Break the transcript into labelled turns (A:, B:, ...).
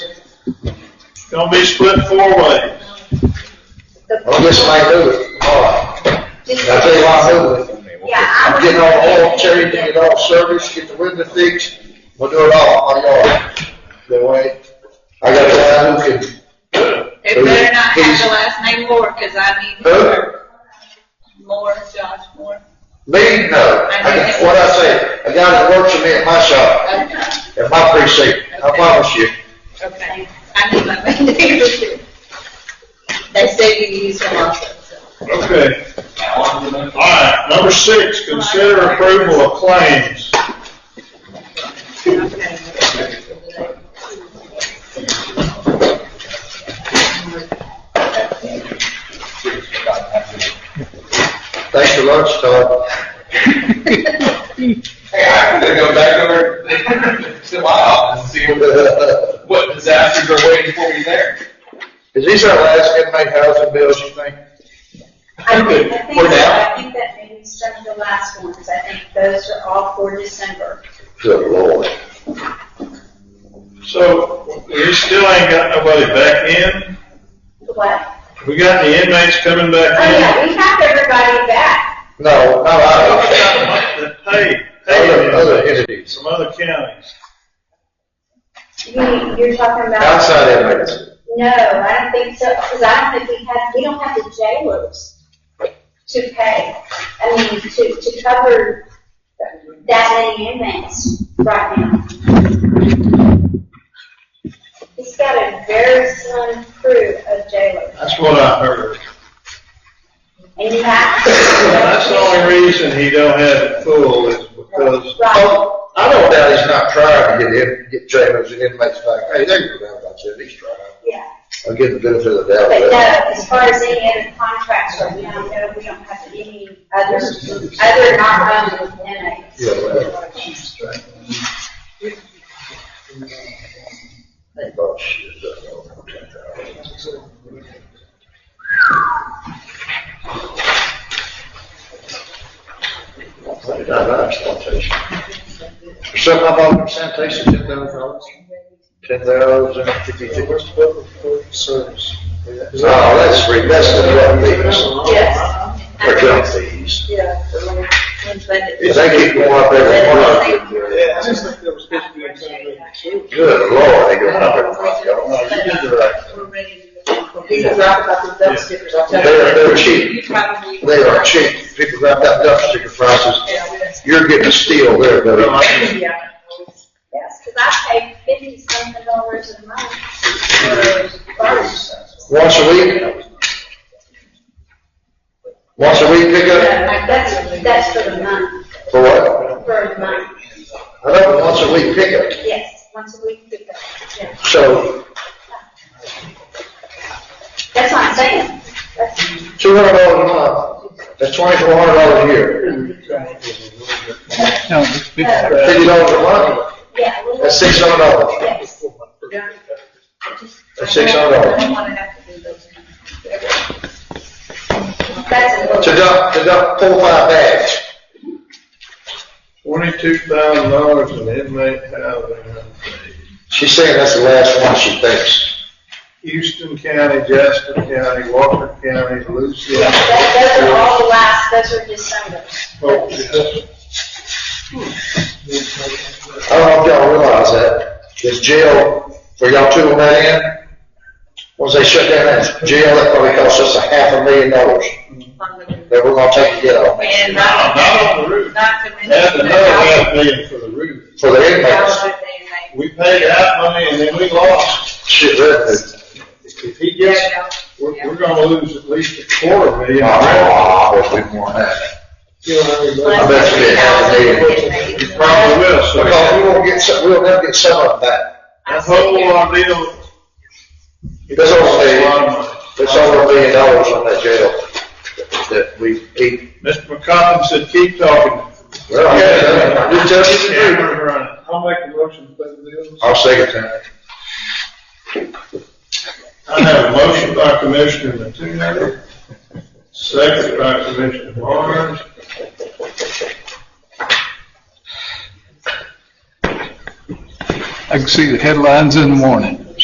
A: Gonna be split four ways.
B: Well, this may do it tomorrow. I tell you what, I'll do it.
C: Yeah.
B: I'm getting all oil changed, get all service, get the window fixed, we'll do it all on my yard. That way, I got a guy who can,
D: It better not have the last name Moore, cause I need
B: Who?
D: Moore. Moore, Josh Moore.
B: me, no, I- what I say, a guy that works with me at my shop,
D: Okay,
B: at my precinct, I promise you.
D: okay. I need my main name. They say you use them also, so.
A: Okay. Alright, number six, consider approval of claims.
D: Okay.
B: Thanks for lunch, Todd.
E: Hey, I'm gonna go back over to my office and see what, what disasters are waiting for me there.
B: Is these our last inmate housing bills, you think?
C: I think, I think,
E: We're down.
C: I think that maybe some of the last ones, I think those are all for December.
B: Good lord.
A: So, we still ain't got nobody back in?
C: What?
A: We got the inmates coming
C: Oh,
A: back in?
C: yeah, we have everybody back.
B: No, no, I
A: That Pay,
B: don't.
A: pay
B: Other, other
A: them,
B: entities,
A: some other counties.
C: You, you're talking about.
B: outside inmates.
C: No, I don't think so, because I don't think we have, we don't have the jailers to pay, I mean, to, to cover that many inmates right now. He's got a very slim crew of jailers,
A: That's what I heard.
C: and you have. to-
A: That's the only reason he don't have it full is because,
C: Right,
B: Oh, I don't doubt he's not trying to get in, get jailers and inmates back. Hey, they go down about that. He's trying.
C: yeah,
B: I'll give the benefit of the
C: but no,
B: doubt.
C: as far as any other contracts, right now, no, we don't have any others, other not owned inmates.
B: Yeah, well. Oh, shit. that's all. Why did I write sanitation? There's Something about them sanitation, ten thousand dollars? Ten thousand fifty-two.
F: service.
B: No, that's free, that's the drug fees,
D: Yes.
B: or junk fees.
D: Yeah. They
B: If they keep going up every month,
F: Yeah. I just think that was supposed to be a separate service.
B: good lord, they go up every month, y'all.
G: People rap about the dump stickers, I'll tell you.
B: They're, they're cheap,
G: Probably-
B: they are cheap, people grab that dump sticker prices, you're getting a steal there, buddy.
G: Yeah.
C: Yes, because I pay fifty something dollars a month for garbage.
B: Once a week? Once a week pickup,
C: Like, That's, that's for the month,
B: for what?
C: for a month,
B: I don't, once a week pickup,
C: yes, once a week pickup, yeah.
B: so,
C: That's what I'm saying. That's- uh,
B: two hundred dollars a month, that's twenty-four hundred dollars a year,
C: uh,
B: fifty dollars a month,
C: Yeah. a little-
B: that's six hundred dollars.
C: Yes.
B: That's six hundred dollars.
D: don't wanna have to do those.
C: That's a
B: To
C: little,
B: dump, to dump four, or five bags.
A: Twenty-two thousand dollars in inmate housing.
B: She's saying that's the last one she thinks.
A: Houston County, Jasper County, Walker County, Lucy.
C: that, those are all the last, those are December.
B: I don't know if y'all realize that. This jail, for y'all two on that end, once they shut down that jail, that probably cost us a half a million dollars that we're gonna take to get out
D: And
A: No,
D: not,
A: not on the roof.
D: not to mention
A: That's
D: the
A: another
D: house,
A: half million for the roof.
B: for the
D: the house
B: inmates.
D: that they made.
A: We paid out money and then we lost.
B: Shit, that,
A: If he gets, we're, we're gonna lose at least a quarter million.
B: ah, I wish we'd won that. I bet you did half a million.
A: You probably will, so
B: Because we won't get some, we'll never get some of that.
A: that whole ordeal.
B: That's all I'm saying.
A: A lot of money.
B: It's over a million dollars on that jail that we keep.
A: Mr. McCollum said, keep talking.
B: Well, yeah, just tell us the truth.
A: Camera running.
F: I'll make a motion to pay the bills.
B: I'll second that.
A: I have a motion by Commissioner Mattoon, second by Commissioner Barnes.
H: I can see the headlines in the morning.